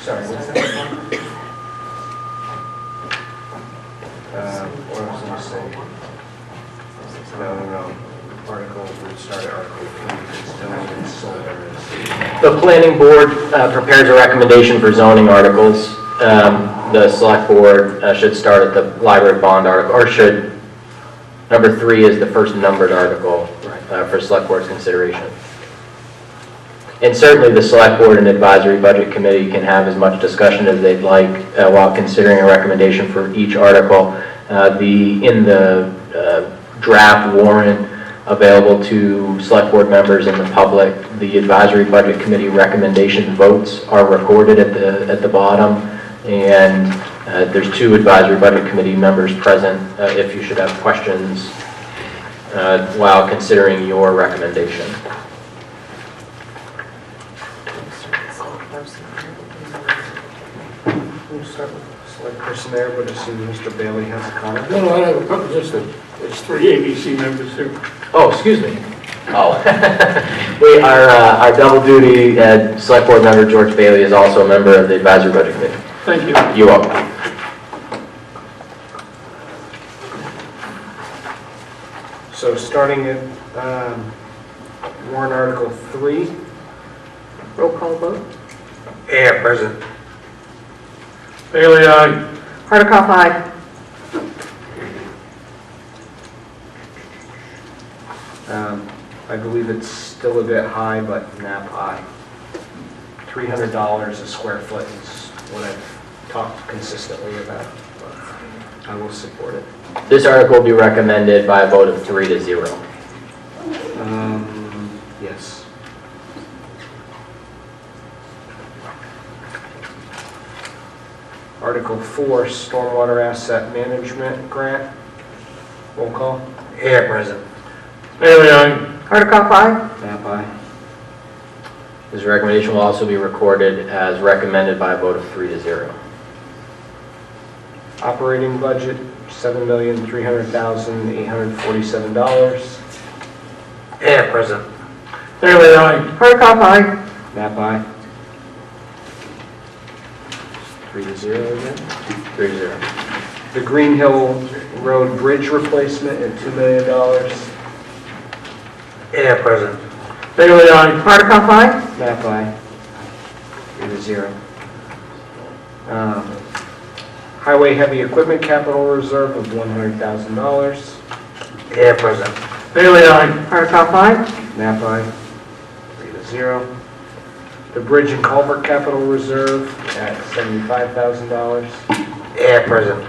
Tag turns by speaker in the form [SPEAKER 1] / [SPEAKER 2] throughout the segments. [SPEAKER 1] Sorry, what's that? Uh, what I was gonna say. No, no, no. Article, we started article three, it's still in solar.
[SPEAKER 2] The planning board uh, prepares a recommendation for zoning articles. Um, The select board uh, should start at the library bond article, or should, number three is the first numbered article uh, for select board's consideration. And certainly, the select board and advisory budget committee can have as much discussion as they'd like uh, while considering a recommendation for each article. Uh, The, in the uh, draft warrant available to select board members and the public, the advisory budget committee recommendation votes are recorded at the, at the bottom. And uh, there's two advisory budget committee members present uh, if you should have questions uh, while considering your recommendation.
[SPEAKER 1] We'll start with select person there, would assume Mr. Bailey has a comment.
[SPEAKER 3] No, no, I have a couple, just that, there's three ABC members here.
[SPEAKER 2] Oh, excuse me. Oh. We, our, uh, our double duty, uh, Select Board member George Bailey is also a member of the Advisory Budget Committee.
[SPEAKER 3] Thank you.
[SPEAKER 2] You are.
[SPEAKER 1] So starting at um, warrant article three.
[SPEAKER 4] Roll call vote.
[SPEAKER 1] Yeah, present.
[SPEAKER 3] Bailey, aye.
[SPEAKER 4] Hardikoff, aye.
[SPEAKER 1] Um, I believe it's still a bit high, but nap high. Three hundred dollars a square foot is what I've talked consistently about. but I will support it.
[SPEAKER 2] This article will be recommended by a vote of three to zero.
[SPEAKER 1] Um, Yes. Article four, stormwater asset management grant. Roll call. Here, present.
[SPEAKER 3] Bailey, aye.
[SPEAKER 4] Hardikoff, aye.
[SPEAKER 1] Nap aye.
[SPEAKER 2] This recommendation will also be recorded as recommended by a vote of three to zero.
[SPEAKER 1] Operating budget, seven million, three hundred thousand, eight hundred forty-seven dollars. Here, present.
[SPEAKER 3] Bailey, aye.
[SPEAKER 4] Hardikoff, aye.
[SPEAKER 1] Nap aye. Three to zero again.
[SPEAKER 2] Three to zero.
[SPEAKER 1] The Green Hill Road Bridge replacement at two million dollars. Here, present.
[SPEAKER 3] Bailey, aye.
[SPEAKER 4] Hardikoff, aye.
[SPEAKER 1] Nap aye. Three to zero. Um, Highway Heavy Equipment Capital Reserve of one hundred thousand dollars. Here, present.
[SPEAKER 3] Bailey, aye.
[SPEAKER 4] Hardikoff, aye.
[SPEAKER 1] NAPI, three to zero. The Bridge and Culvert Capital Reserve at seventy-five thousand dollars. Yeah, present.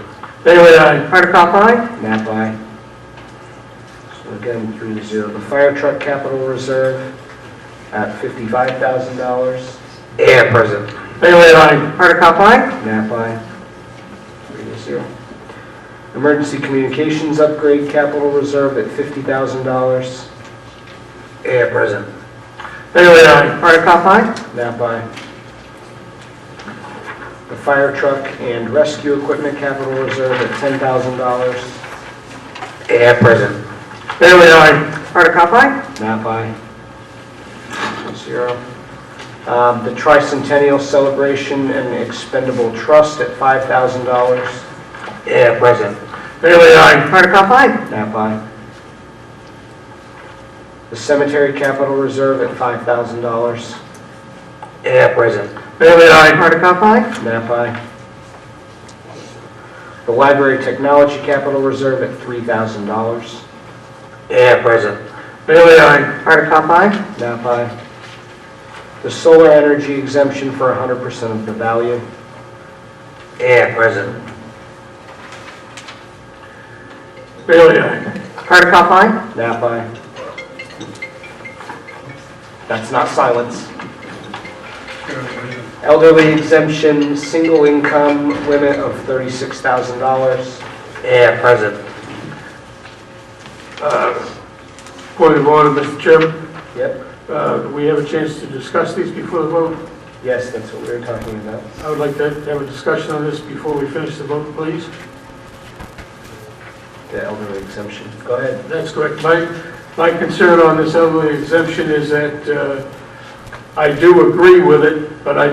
[SPEAKER 3] Bailey, aye.
[SPEAKER 4] Hardikoff, aye.
[SPEAKER 1] NAPI. So again, three to zero. The Fire Truck Capital Reserve at fifty-five thousand dollars. Yeah, present.
[SPEAKER 3] Bailey, aye.
[SPEAKER 4] Hardikoff, aye.
[SPEAKER 1] NAPI, three to zero. Emergency Communications Upgrade Capital Reserve at fifty thousand dollars. Yeah, present.
[SPEAKER 3] Bailey, aye.
[SPEAKER 4] Hardikoff, aye.
[SPEAKER 1] That by The fire truck and rescue equipment capital reserve at ten thousand dollars. Yeah, present.
[SPEAKER 3] Bailey, aye.
[SPEAKER 4] Hardikoff, aye.
[SPEAKER 1] That by Zero. Um, the tricentennial celebration and expendable trust at five thousand dollars. Yeah, present.
[SPEAKER 3] Bailey, aye.
[SPEAKER 4] Hardikoff, aye.
[SPEAKER 1] That by The cemetery capital reserve at five thousand dollars. Yeah, present.
[SPEAKER 3] Bailey, aye.
[SPEAKER 4] Hardikoff, aye.
[SPEAKER 1] NAPI. The Library Technology Capital Reserve at $3,000. Yeah, present.
[SPEAKER 3] Bailey, aye.
[SPEAKER 4] Hardikoff, aye.
[SPEAKER 1] NAPI. The Solar Energy Exemption for 100% of the value. Yeah, present.
[SPEAKER 3] Bailey, aye.
[SPEAKER 4] Hardikoff, aye.
[SPEAKER 1] NAPI. That's not silence. Elderly exemption, single income limit of $36,000. Yeah, present.
[SPEAKER 3] Point of order, Mr. Chairman.
[SPEAKER 1] Yep,
[SPEAKER 3] Uh, do we have a chance to discuss these before the vote?
[SPEAKER 1] yes, that's what we were talking about.
[SPEAKER 3] I would like to have a discussion on this before we finish the vote, please.
[SPEAKER 1] The elderly exemption. Go ahead.
[SPEAKER 3] That's correct. My, my concern on this elderly exemption is that uh, I do agree with it, but I